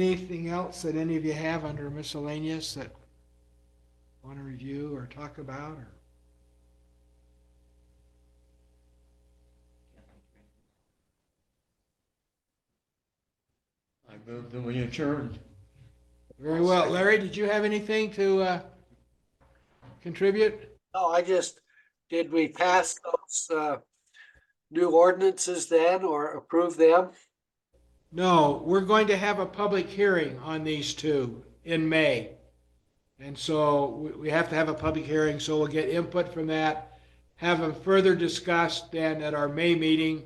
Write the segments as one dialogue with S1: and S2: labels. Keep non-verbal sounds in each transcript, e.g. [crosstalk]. S1: Anything else that any of you have under miscellaneous that want to review or talk about or?
S2: I move that we adjourn.
S1: Very well. Larry, did you have anything to uh, contribute?
S3: No, I just, did we pass those uh, new ordinances then or approve them?
S1: No, we're going to have a public hearing on these two in May. And so we- we have to have a public hearing, so we'll get input from that, have them further discussed then at our May meeting,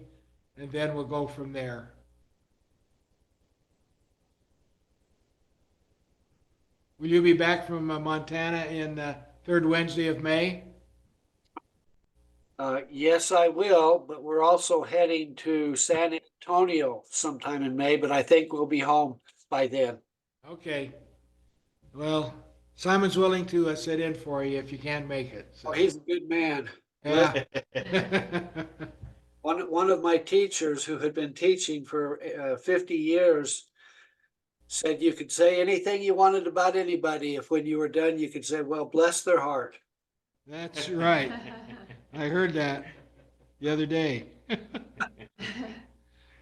S1: and then we'll go from there. Will you be back from uh, Montana in uh, third Wednesday of May?
S3: Uh, yes, I will, but we're also heading to San Antonio sometime in May, but I think we'll be home by then.
S1: Okay. Well, Simon's willing to uh, sit in for you if you can't make it. so-
S3: Oh, he's a good man.
S1: Yeah.
S3: One, one of my teachers who had been teaching for uh, fifty years said you could say anything you wanted about anybody. If when you were done, you could say, well, bless their heart.
S1: [laughs] That's
S4: [laughs]
S1: right. I heard that the other day. [laughs]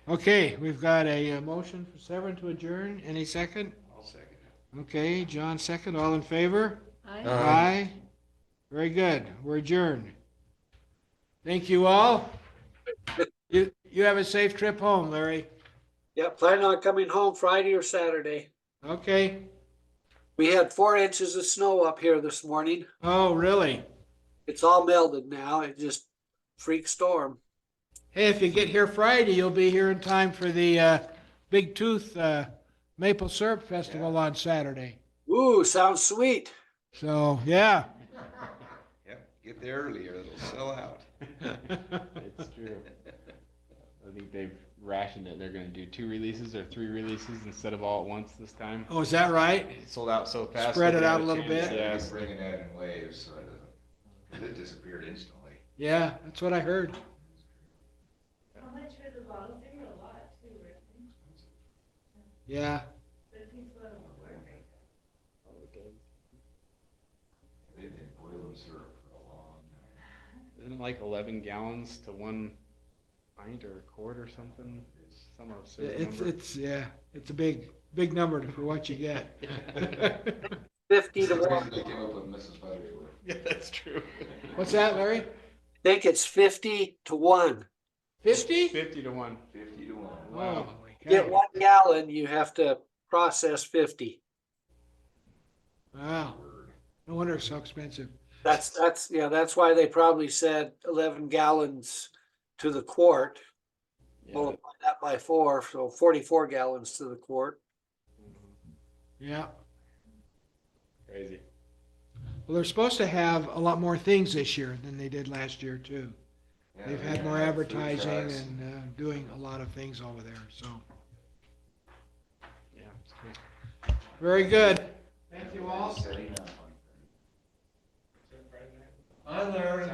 S1: Okay, we've got a uh, motion for Severn to adjourn. Any second?
S2: I'll second it.
S1: Okay, John second. All in favor?
S2: Aye.
S5: I
S1: Aye. Very good. We're adjourned. Thank you all. You, you have a safe trip home, Larry.
S3: Yeah, plan on coming home Friday or Saturday.
S1: Okay.
S3: We had four inches of snow up here this morning.
S1: Oh, really?
S3: It's all melted now. It just freak storm.
S1: Hey, if you get here Friday, you'll be here in time for the uh, Big Tooth uh, Maple Syrup Festival on Saturday.
S3: Ooh, sounds sweet.
S1: So, yeah. [laughs]
S6: Yep, get there earlier, it'll sell out.
S5: It's true. I think they've rationed it. They're going to do two releases or three releases instead of all at once this time.
S1: Oh, is that right?
S5: It sold out so fast.
S1: Spread
S5: they
S1: it
S5: didn't
S1: out
S5: have
S1: a little
S5: chance.
S1: bit.
S6: Yeah,
S5: Yes.
S6: he's bringing that in waves, so it doesn't, 'cause it disappeared instantly.
S1: Yeah, that's what I heard.
S4: How much for the bottles? They were a lot too, right?
S1: Yeah.
S4: But people don't want to work right now.
S6: They've been boiling syrup for a long time.
S5: Isn't it like 11 gallons to one pint or a quart or something? Some absurd
S1: It's,
S5: number.
S1: it's, yeah, it's a big, big number for what you get.
S5: [laughs]
S3: Fifty to
S6: Sometimes [laughs]
S3: one.
S6: They came up with Mrs. Butterworth.
S5: yeah, [laughs] that's true.
S1: What's that, Larry?
S3: I think it's fifty to one.
S1: 50?
S5: 50 to 1.
S6: Fifty to one.
S1: Wow.
S3: Get one gallon, you have to process fifty.
S1: Wow. No wonder it's so expensive.
S3: That's, that's, yeah, that's why they probably said eleven gallons to the quart.
S5: Yeah.
S3: Multiply that by four, so forty-four gallons to the quart.
S1: Yeah.
S5: Crazy.
S1: Well, they're supposed to have a lot more things this year than they did last year, too.
S6: Yeah,
S1: They've
S6: they
S1: had
S6: got
S1: more
S6: food
S1: advertising
S6: trucks.
S1: and uh, doing a lot of things over there, so.
S5: Yeah. it's cool.
S1: Very good.
S6: Setting up.
S1: Bye, Larry.